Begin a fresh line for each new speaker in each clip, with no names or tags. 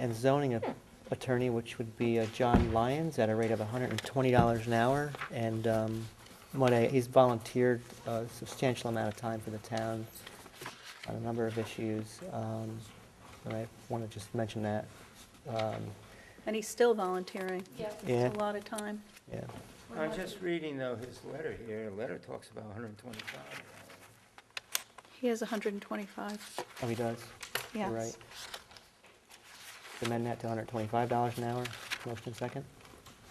and zoning a- attorney, which would be uh, John Lyons, at a rate of $120 an hour. And um, what I- he's volunteered a substantial amount of time for the town on a number of issues. um, And I want to just mention that. Um,
And he's still volunteering.
Yeah.
Yeah.
It's a lot of time.
Yeah,
We're
I was
lucky.
just reading though his letter here, the letter talks about 125.
He has 125,
oh, he does? You're
yes.
right. Amend that to $125 an hour. Motion second?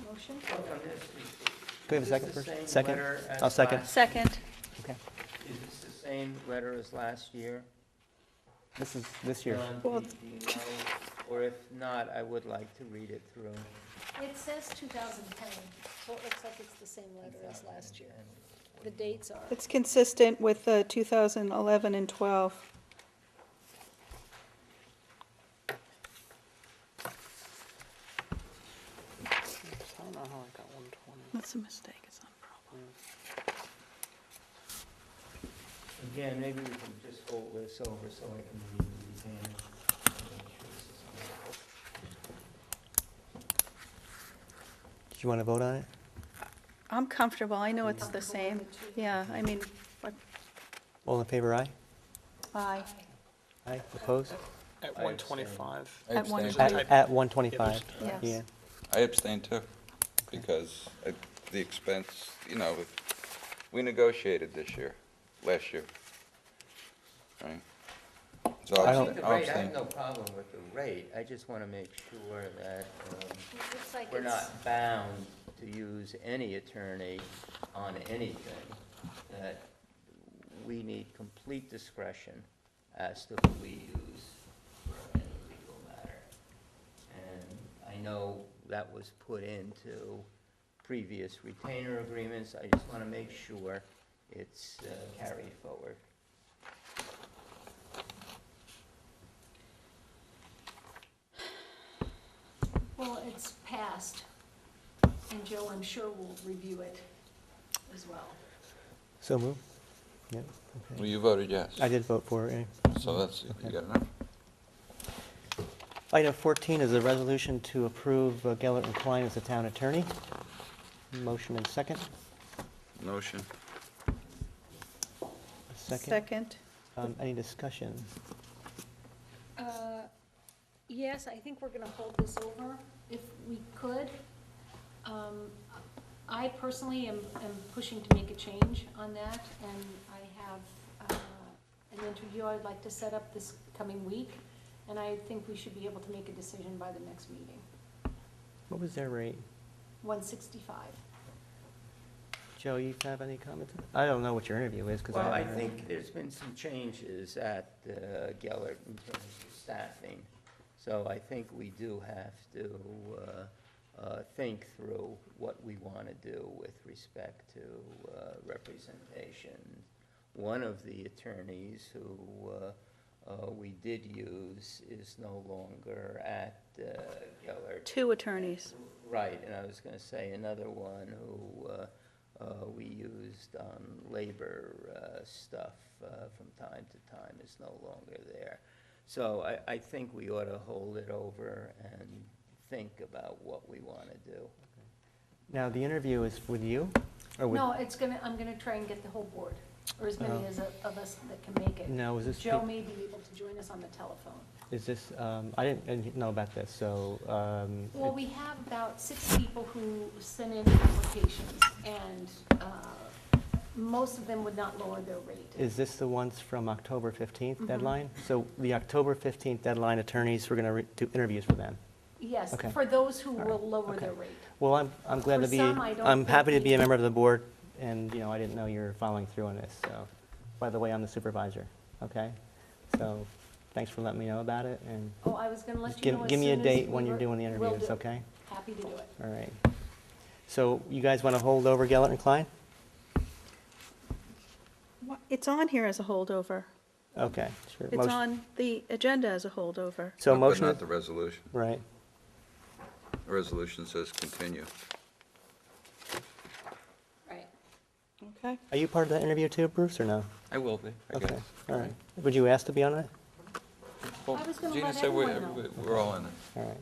Motion?
Look on this, is-
Do we have a
is
second
this the
first?
same
Second.
letter as
I'll second.
last-
Second,
Okay.
Is this the same letter as last year?
This is, this year.
John,
Well-
do do you know? Or if not, I would like to read it through.
It says 2010, so it looks like it's the same letter as last year. The dates are,
it's consistent with uh, 2011 and 12.
I don't know how I got 120.
That's a mistake, it's not a
Again, maybe we can just hold this over so I can read these in.
Do you want to vote on it?
problem. I'm comfortable, I know it's the same. Yeah, I mean, but-
All in favor, aye?
aye.
Aye, opposed?
At
I
one
abstain.
twenty-five.
I
At one
abstain.
At
Aye.
at 125,
Yes.
yeah.
I abstain too, because at the expense, you know, if- we negotiated this year, last year. Right? So I'll
I
I
don't-
think
abstain-
the
I'll
rate, I have
abstain.
no problem with the rate, I just want to make sure that um,
it looks like
we're
it's,
not bound to use any attorney on anything, that we need complete discretion as to who we use for any legal matter. And I know that was put into previous retainer agreements, I just want to make sure it's uh, carried forward.
well, it's passed, and Joe, I'm sure will review it as well.
So move. Yep,
Well,
okay.
you voted yes.
I did vote for it, yeah.
So that's, you got enough?
Item 14 is a resolution to approve uh, Gellert and Klein as the town attorney. Motion and second.
Motion.
Second,
Um, Any discussion?
Uh, Yes, I think we're gonna hold this over if we could. Um, I personally am, am pushing to make a change on that, and I have, uh, an interview I'd like to set up this coming week, and I think we should be able to make a decision by the next meeting.
What was their rate?
One sixty-five.
Joe, you have any comments? I don't know what your interview is, because I
Well, I
haven't heard.
think there's been some changes at uh, Gellert in terms of staffing, so I think we do have to uh, uh, think through what we want to do with respect to uh, representation. One of the attorneys who uh, uh, we did use is no longer at uh, Gellert.
two attorneys.
Right, and I was going to say another one who uh, uh, we used on labor uh, stuff uh, from time to time is no longer there. So I, I think we ought to hold it over and think about what we want to do.
Now, the interview is with you? or with?
No, it's gonna, I'm gonna try and get the whole board, or as many
Oh.
as a- of us that can make it.
Now, is this
Joe
pe-
may be able to join us on the telephone.
Is this, um, I didn't- I didn't know about this, so. um,
Well,
it-
we have about six people who sent in applications, and uh, most of them would not lower their rate.
Is this the ones from October 15th
Mhm.
deadline? So the October 15th deadline attorneys, we're going to do interviews for them.
Yes,
okay.
for those who
All right,
will lower
okay.
their rate.
Well, I'm, I'm glad
For
to be,
some, I don't
I'm happy to
think
be
we-
a member of the board, and, you know, I didn't know you were following through on this, so. By the way, I'm the supervisor, okay? So thanks for letting me know about it, and
Oh, I was going to
just
let you know
give,
as
give me a
soon as
date
we
when you're
were-
doing the
will
interviews,
do.
okay?
Happy to do it.
All right. So you guys want to hold over Gellert and Klein?
Wha- It's on here as a holdover.
Okay. sure.
It's
Motion-
on the agenda as a holdover.
So
But
motion,
Not the resolution.
right.
The resolution says continue.
Right.
Okay.
Are you part of that interview too, Bruce, or no?
I will be,
Okay, all right. Would you ask to be on it?
Well,
I was gonna
Gina
let
said we're,
everyone know.
we're all in it.
all right.